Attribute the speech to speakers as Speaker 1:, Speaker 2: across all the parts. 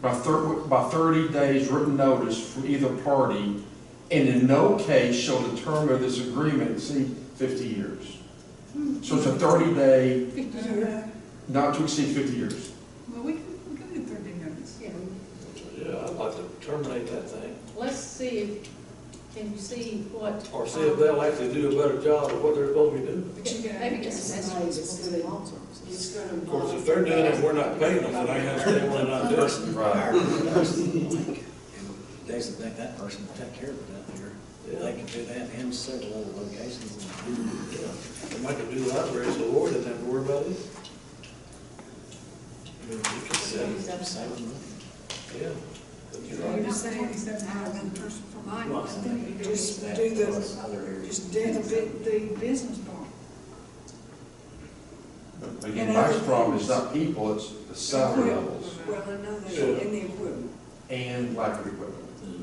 Speaker 1: by thir, by thirty days written notice from either party, and in no case shall the term of this agreement exceed fifty years. So it's a thirty day,
Speaker 2: Well,
Speaker 1: not to exceed fifty years.
Speaker 2: we can, we can do thirty minutes.
Speaker 3: Yeah.
Speaker 4: Yeah, I'd like to terminate that thing,
Speaker 3: Let's see, if can you see what?
Speaker 4: or see if they'll actually do a better job of what they're supposed to be doing.
Speaker 2: But you gotta-
Speaker 3: Maybe just accessories. will do it.
Speaker 5: It's gonna.
Speaker 4: Of course, if they're doing it, we're not paying them, then I understand why they're not doing it.
Speaker 1: Right.
Speaker 6: Designate that person to take care of it out there. They can do that in several other locations.
Speaker 4: Yeah, They might could do the library, so Lord doesn't have to worry about it. I mean, you could say,
Speaker 6: Save them money.
Speaker 4: yeah.
Speaker 2: You're just saying except for one person for mine.
Speaker 6: Well, I think you
Speaker 2: Just
Speaker 6: that
Speaker 2: do
Speaker 6: plus
Speaker 2: the,
Speaker 6: Other areas.
Speaker 2: just do the, bu- the business part.
Speaker 1: Again, Mike's problem is not people, it's the salary levels
Speaker 2: Well, I know that,
Speaker 4: Sure.
Speaker 2: and the equipment.
Speaker 1: and lack of equipment.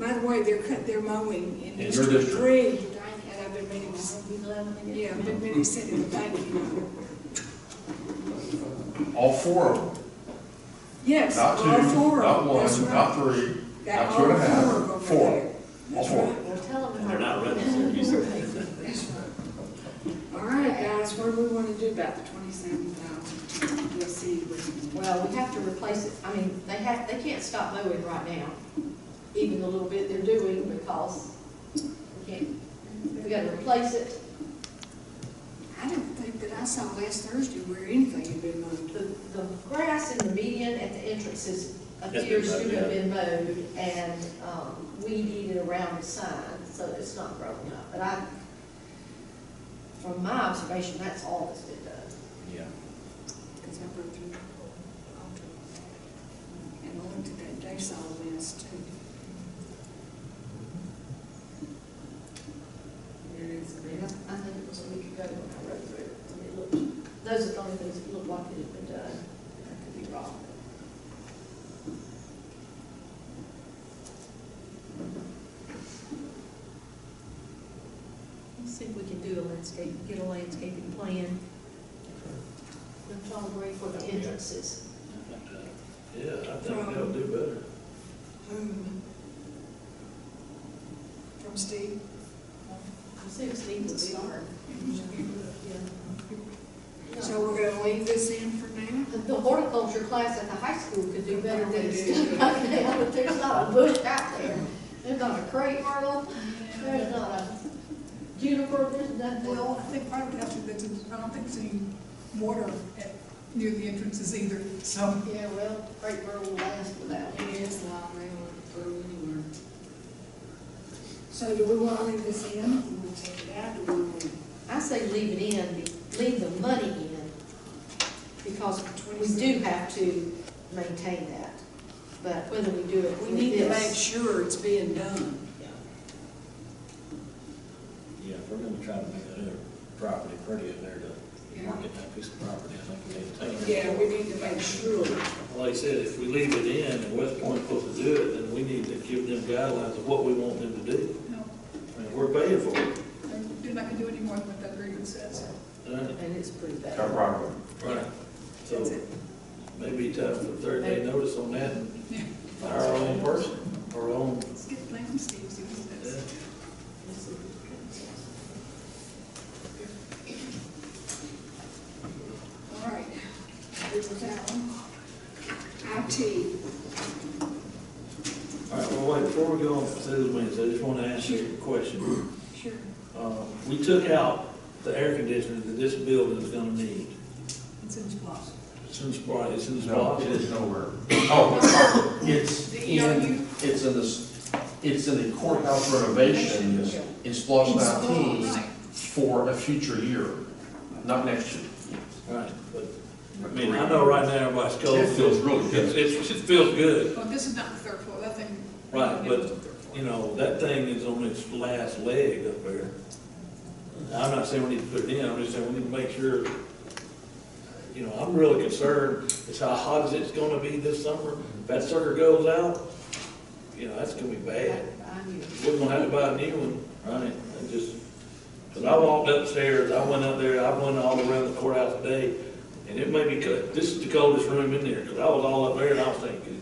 Speaker 2: By the way, they're cut, they're mowing in
Speaker 1: your
Speaker 2: District
Speaker 1: district.
Speaker 2: Three, and I've been meaning, to s-
Speaker 3: Be glad when they
Speaker 2: yeah,
Speaker 3: get
Speaker 2: I've
Speaker 3: them.
Speaker 2: been meaning to say that, thank you.
Speaker 1: All four of them,
Speaker 2: Yes, all
Speaker 1: not two,
Speaker 2: four
Speaker 1: not
Speaker 2: of them, that's
Speaker 1: one, not
Speaker 2: right.
Speaker 1: three,
Speaker 2: That
Speaker 1: not two and a half,
Speaker 2: all four of them
Speaker 1: four.
Speaker 2: over there.
Speaker 1: all
Speaker 2: That's
Speaker 1: four.
Speaker 2: right.
Speaker 3: Well, tell them.
Speaker 6: And they're not running, they're using.
Speaker 2: That's right. All right, guys, what do we want to do about the twenty-seven thousand? We'll see. what-
Speaker 3: Well, we have to replace it, I mean, they have, they can't stop mowing right now, even the little bit they're doing because we can't, we gotta replace it.
Speaker 2: I didn't think that I saw last Thursday where anything had been moved.
Speaker 3: The, the grass in the median at the entrances
Speaker 6: been
Speaker 3: appears to
Speaker 6: mowed,
Speaker 3: have been mowed and, um, weeded around the sign, so it's not growing up. But I, from my observation, that's all that's been done.
Speaker 6: Yeah.
Speaker 2: Because I broke through. Alter. And I looked at that day saw list too.
Speaker 3: Yeah, I think it was a week ago when I read through it, and it looked, those are the only things that looked like it had been done. I could be wrong. Let's see if we can do a landscape, get a landscaping plan. That's all great for the entrances.
Speaker 4: Yeah, I think they'll do better.
Speaker 2: Whom? Hmm. From Steve?
Speaker 3: I see if Steve would be hard. Yeah.
Speaker 2: So we're gonna leave this in for now?
Speaker 3: The horticulture class at the high school could do better than it's doing right now, but there's not a bush out there. There's not a crepe myrtle, there's not a juniper, there's nothing.
Speaker 7: Well, I think part of that's, that I don't think there's any water at, near the entrances either, so.
Speaker 3: Yeah, well, crepe myrtle will last without it.
Speaker 2: is not really through anywhere. So do we wanna leave this in? Do we wanna take it out? Do we wanna?
Speaker 3: I say leave it in, leave the money in, because we do have to maintain that. But whether we do it
Speaker 2: We
Speaker 3: with
Speaker 2: need to make
Speaker 3: this.
Speaker 2: sure it's being done.
Speaker 6: Yeah, if we're gonna try to make that other property pretty in there to market that piece of property, I think we need to take. care
Speaker 2: Yeah,
Speaker 6: of
Speaker 2: we need to make sure.
Speaker 4: Well, Like I said, if we leave it in and West Point's supposed to do it, then we need to give them guidelines of what we want them to do.
Speaker 7: No,
Speaker 4: I mean, we're paying for it.
Speaker 7: they're not gonna do any more than what that agreement says.
Speaker 4: right?
Speaker 3: And it's pretty bad.
Speaker 1: Got right away.
Speaker 4: Right.
Speaker 7: That's
Speaker 4: So
Speaker 7: it.
Speaker 4: maybe time for third day notice on that and hire our own person, our own,
Speaker 7: Let's get the plan from Steve, see what he
Speaker 4: yeah.
Speaker 7: says.
Speaker 2: All right. Here's that one. IT.
Speaker 4: All right, well, wait, before we go on to the minutes, I just want to ask you a question.
Speaker 2: Sure.
Speaker 4: Uh, We took out the air conditioner that this building is gonna need.
Speaker 7: It's in his block.
Speaker 4: It's in Sprott, it's in the
Speaker 1: No,
Speaker 4: spot.
Speaker 1: it is nowhere. Oh, it's in, it's in this, it's in the courthouse renovation in Splosh nineteen for a future year, not next year.
Speaker 4: Right, but, I mean, I know right now everybody's cold.
Speaker 1: It feels really good.
Speaker 4: It's- it's- It feels good,
Speaker 7: Well, this is not the third floor, that thing.
Speaker 4: Right, but,
Speaker 7: The third floor.
Speaker 4: you know, that thing is on its last leg up there. I'm not saying we need to put it in, I'm just saying we need to make sure, you know, I'm really concerned is how hot is it's gonna be this summer. If that sucker goes out, you know, that's gonna be bad.
Speaker 3: I knew.
Speaker 4: We're gonna have to buy a new one, right? I just, cause I walked upstairs, I went up there, I went all around the courthouse today, and it made me cut, this is the coldest room in there, cause I was all up there and I was thinking,